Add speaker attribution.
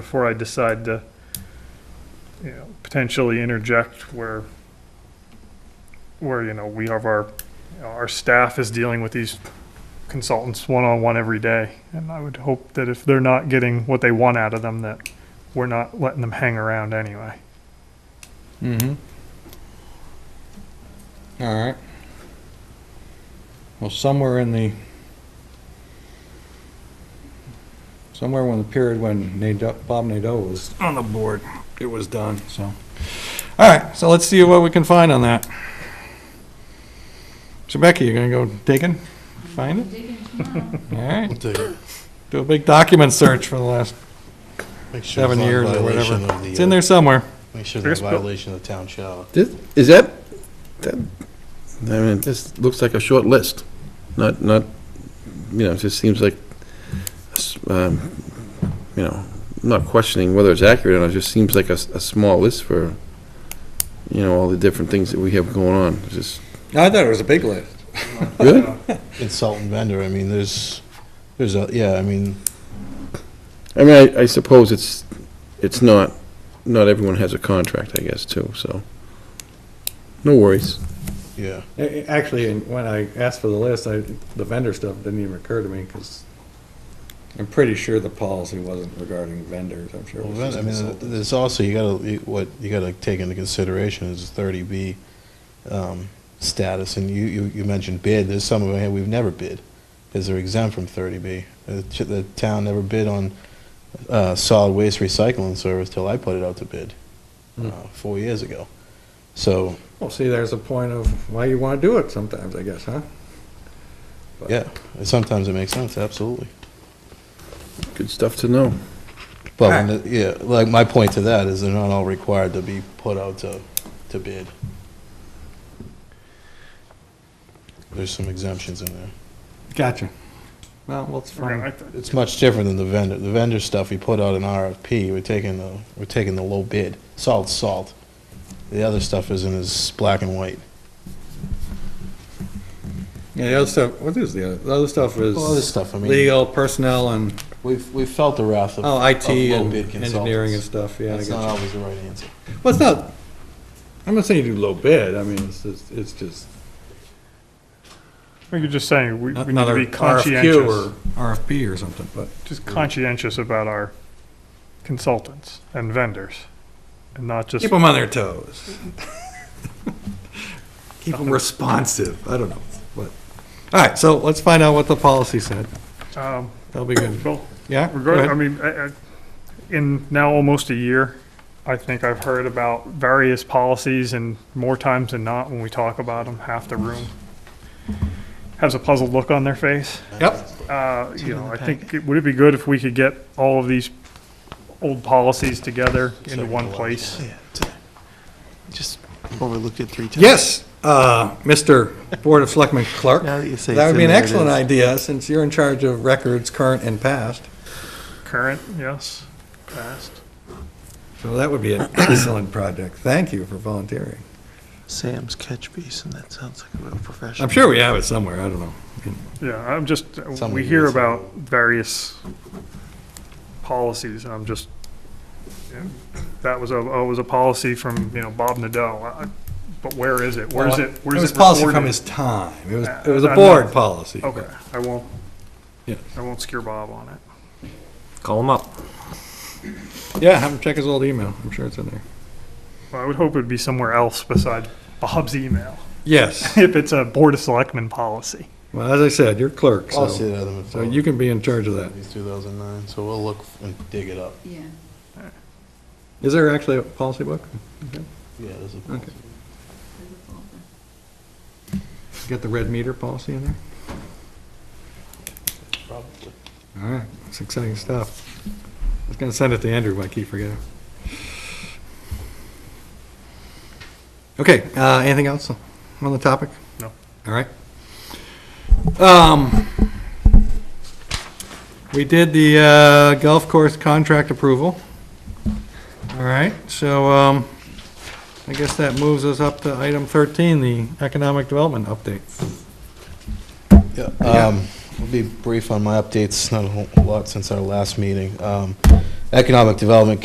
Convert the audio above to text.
Speaker 1: before I decide to, you know, potentially interject where, where, you know, we have our, you know, our staff is dealing with these consultants one-on-one every day. And I would hope that if they're not getting what they want out of them, that we're not letting them hang around anyway.
Speaker 2: Mm-hmm. All right. Well, somewhere in the, somewhere when the period when Nadeau, Bob Nadeau was on the board, it was done, so. All right, so let's see what we can find on that. So Becky, you gonna go digging, find it? All right,
Speaker 3: We'll take it.
Speaker 2: do a big document search for the last
Speaker 3: Make sure
Speaker 2: seven
Speaker 3: it's not a
Speaker 2: years or whatever.
Speaker 3: violation of the,
Speaker 2: It's in
Speaker 3: uh,
Speaker 2: there somewhere.
Speaker 3: Make sure it's
Speaker 1: Chris,
Speaker 3: a
Speaker 1: but-
Speaker 3: violation of the town shower.
Speaker 4: This, is that, that, I mean, this looks like a short list, not, not, you know, it just seems like, s- um, you know, I'm not questioning whether it's accurate or not, it just seems like a, s- a small list for, you know, all the different things that we have going on, It's just,
Speaker 2: I thought it was a big list.
Speaker 4: good?
Speaker 1: Uh,
Speaker 3: Consultant vendor, I mean, there's, there's a, yeah, I mean,
Speaker 4: I mean, I, I suppose it's, it's not, not everyone has a contract, I guess, too, so, no worries.
Speaker 3: yeah.
Speaker 2: A- a- Actually, and when I asked for the list, I, the vendor stuff didn't even occur to me, because I'm pretty sure the policy wasn't regarding vendors, I'm sure. it
Speaker 3: Well,
Speaker 2: was
Speaker 3: ven-
Speaker 2: just
Speaker 3: I mean, uh,
Speaker 2: consultants.
Speaker 3: there's also, you gotta, you- what you gotta take into consideration is thirty B, um, status, and you, you, you mentioned bid, there's some of them, we've never bid, because they're exempt from thirty B. The ch- the town never bid on, uh, solid waste recycling service till I put it out to bid,
Speaker 2: Hmm.
Speaker 3: uh, four years ago. So,
Speaker 2: Well, see, there's a point of why you want to do it sometimes, I guess, huh?
Speaker 3: yeah, sometimes it makes sense, absolutely.
Speaker 4: Good stuff to know.
Speaker 3: But, when the- yeah, like, my point to that is they're not all required to be put out to, to bid. There's some exemptions in there.
Speaker 2: Gotcha. Well, well, it's
Speaker 1: Okay, I
Speaker 2: fine.
Speaker 1: th-
Speaker 3: It's much different than the vendor, the vendor stuff, we put out an RFP, we're taking the, we're taking the low bid, salt, salt. The other stuff isn't as black and white.
Speaker 5: Yeah, the other stuff, what is the other, the other stuff
Speaker 3: Well, other
Speaker 5: is
Speaker 3: stuff, I mean,
Speaker 5: legal, personnel, and,
Speaker 3: we've, we've felt the wrath of.
Speaker 5: oh, IT
Speaker 3: of low
Speaker 5: and
Speaker 3: bid
Speaker 5: engineering and
Speaker 3: consultants.
Speaker 5: stuff, yeah. I
Speaker 3: That's
Speaker 5: got
Speaker 3: not
Speaker 5: you.
Speaker 3: always the right answer.
Speaker 5: Well, it's not, I'm not saying you do low bid, I mean, it's just, it's just
Speaker 1: I think you're just saying, we we need to
Speaker 5: another
Speaker 1: be
Speaker 5: RFQ
Speaker 1: conscientious,
Speaker 5: or RFP or something, but.
Speaker 1: just conscientious about our consultants and vendors, and not just,
Speaker 5: Keep them on their toes. Keep them responsive, I don't know, but, all right, so let's find out what the policy said,
Speaker 1: um,
Speaker 5: that'll be good,
Speaker 1: well,
Speaker 5: yeah? go
Speaker 1: Regard, I
Speaker 5: ahead.
Speaker 1: mean, I- I- in now almost a year, I think I've heard about various policies and more times than not, when we talk about them, half the room has a puzzled look on their face.
Speaker 5: Yep,
Speaker 1: Uh, You know, I think, it- would it be good if we could get all of these old policies together into one place?
Speaker 6: uh, Just overlooked it three times.
Speaker 5: yes, uh, Mr. Board of Selectmen Clerk.
Speaker 6: Now that you say.
Speaker 5: That
Speaker 6: it's
Speaker 5: would be
Speaker 6: in
Speaker 5: an
Speaker 6: there, it
Speaker 5: excellent
Speaker 6: is.
Speaker 5: idea, since you're in charge of records, current and past.
Speaker 1: Current, yes, past.
Speaker 5: So that would be an excellent project. Thank you for volunteering.
Speaker 6: Sam's catch basin, that sounds like a real professional.
Speaker 5: I'm sure we have it somewhere, I don't know.
Speaker 1: Yeah, I'm just, uh,
Speaker 3: Some
Speaker 1: we
Speaker 3: of
Speaker 1: hear
Speaker 3: these-
Speaker 1: about various policies, and I'm just, that was a, oh, it was a policy from, you know, Bob Nadeau, I- but where is it? Where is it? Where
Speaker 5: It
Speaker 1: is
Speaker 5: was
Speaker 1: it
Speaker 5: policy from
Speaker 1: recorded?
Speaker 5: his time. It was,
Speaker 1: Uh,
Speaker 5: it was a
Speaker 1: I'm
Speaker 5: board
Speaker 1: not-
Speaker 5: policy.
Speaker 1: Okay, I won't,
Speaker 5: Yeah.
Speaker 1: I won't scare Bob on it.
Speaker 7: Call them up.
Speaker 5: Yeah, have him check his old email. I'm sure it's in there.
Speaker 1: Well, I would hope it'd be somewhere else besides Bob's email,
Speaker 5: Yes.
Speaker 1: if it's a Board of Selectmen policy.
Speaker 5: Well, as I said, you're clerk,
Speaker 3: I'll see
Speaker 5: so,
Speaker 3: that in the.
Speaker 5: so you can be in charge of that.
Speaker 3: It's 2009, so we'll look and dig it up.
Speaker 8: Yeah.
Speaker 5: Is there actually a policy book?
Speaker 3: Yeah, there's a.
Speaker 5: Okay. Get the red meter policy in there?
Speaker 3: Probably.
Speaker 5: All right, it's exciting stuff. I was gonna send it to Andrew, but I keep forgetting. Okay, uh, anything else on the topic?
Speaker 1: No.
Speaker 5: All right. Um, we did the, uh, golf course contract approval. All right, so, um, I guess that moves us up to item thirteen, the economic development update.
Speaker 3: Yeah, um, I'll be brief on my updates, not a whole lot since our last meeting. Um, Economic Development